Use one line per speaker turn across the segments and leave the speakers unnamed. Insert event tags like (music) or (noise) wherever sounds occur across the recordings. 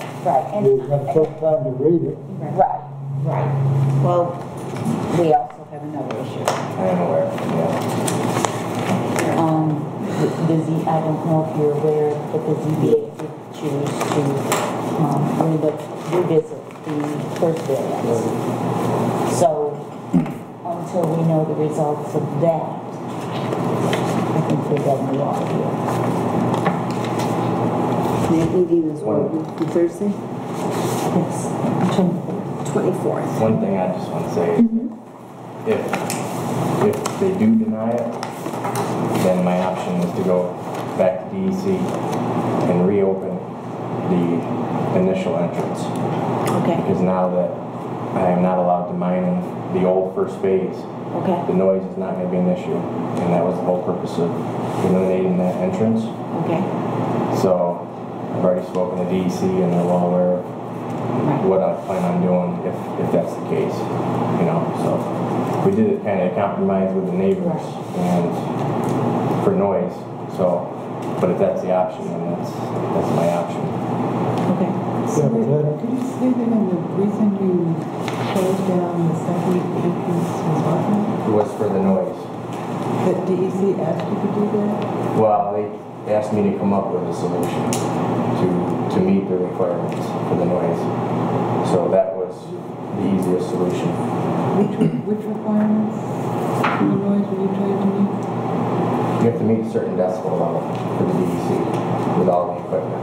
and
You have took time to read it.
Right, right. Well, we also have another issue. I don't know where. Um, the the Z, I don't know if you're aware, but the ZBA did choose to, um, relook, revisit the first variance. So until we know the results of that, I think we're going to law here.
That meeting is on Thursday,
I think it's between-
24th.
One thing I just want to say is if, if they do deny it, then my option is to go back to DEC and reopen the initial entrance.
Okay,
Because now that I am not allowed to mine in the old first phase,
okay,
the noise is not going to be an issue. And that was the whole purpose of eliminating that entrance.
okay.
So I've already spoken to DEC and they're well aware of what I plan on doing if, if that's the case, you know, so. We did it kind of compromise with the neighbors and for noise, so, but if that's the option, then that's, that's my option.
Okay.
Yeah, but that-
Could you say that in the reason you closed down the second entrance was what?
It was for the noise.
That DEC asked you to do that?
Well, they asked me to come up with a solution to, to meet the requirements for the noise. So that was the easiest solution.
Which, which requirements for the noise were you trying to meet?
You have to meet a certain decibel level for the DEC with all the equipment.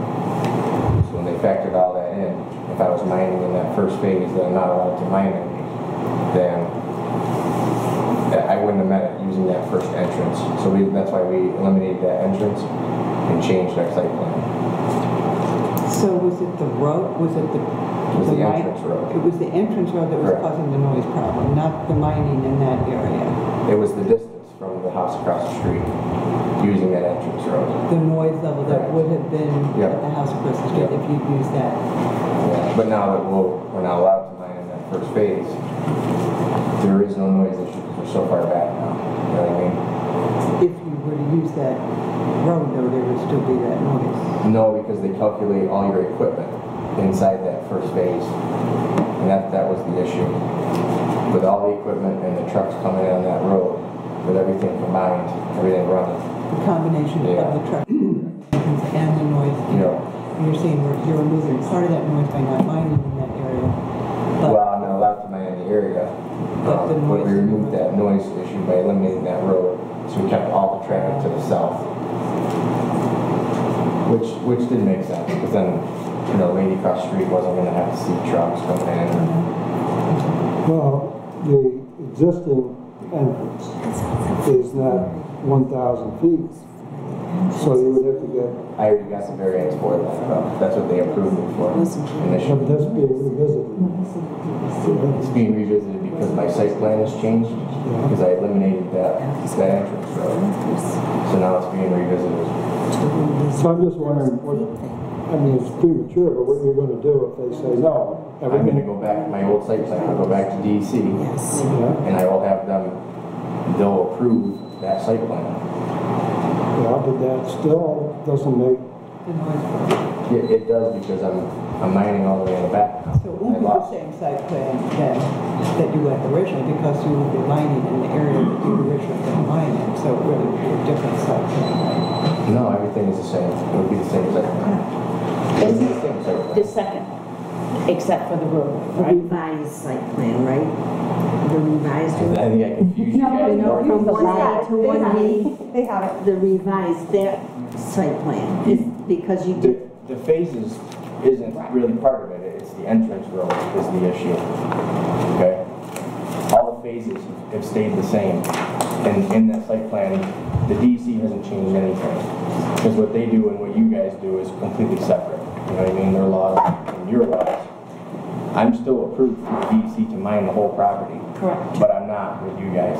So when they factored all that in, if I was mining in that first phase that I'm not allowed to mine in, then I I wouldn't have met it using that first entrance. So we, that's why we eliminated that entrance and changed our site plan.
So was it the road, was it the?
It was the
mi-
entrance road.
It was the entrance road that was
Correct.
causing the noise problem, not the mining in that area.
It was the distance from the house across the street using that entrance road.
The noise level that would have been
Yeah.
at the house across the street
Yeah.
if you'd used that.
Yeah, But now that we'll, we're not allowed to mine in that first phase, there is no noise issue because we're so far back now. You know what I mean?
If you were to use that road though, there would still be that noise.
No, because they calculate all your equipment inside that first phase. And that, that was the issue. With all the equipment and the trucks coming in on that road, with everything combined, everything running,
The combination of the truck (clears throat) and the noise.
you know.
You're saying we're- you're losing part of that noise by not mining in that area.
Well,
But
I'm not allowed to mine in the area.
But the
Um, But we
noise-
removed that noise issue by eliminating that road, so we kept all the traffic to the south. Which, which did make sense, because then, you know, lady across the street wasn't gonna have to see trucks coming in.
Well, the existing entrance is not 1,000 feet, so you would have to get,
I already got some variance for that, though. That's what they approved it for
but
initially.
that's being revisited.
It's being revisited because my site plan has changed, because I eliminated that, that entrance road. So now it's being revisited.
So I'm just wondering, what, I mean, it's premature, but what you're gonna do if they say no?
I'm gonna
Everything,
go back, my old site plan, I'll go back to DC,
Yes.
yeah,
and I will have them, they'll approve that site plan.
yeah, but that still doesn't make,
the noise problem.
Yeah, it does because I'm, I'm mining all the way in the back now.
So
I
it won't be the
lost-
same site plan then that you had originally because you would be mining in the area that you originally had mined in. So it really would be a different site plan. right?
No, everything is the same. It would be the same site plan. It would be the same site plan.
The second, except for the road,
The
right?
revised site plan, right? The revised
I
one?
think I confused you guys.
No, from one A to one B,
They have it.
the revised, that site plan, is because you
The,
did,
the phases isn't really part of it, it's the entrance road is the issue, okay? All the phases have stayed the same, and in that site plan, the DC hasn't changed anything. Because what they do and what you guys do is completely separate, you know what I mean, their laws and your laws. I'm still approved for the DC to mine the whole property,
Correct.
but I'm not with you guys.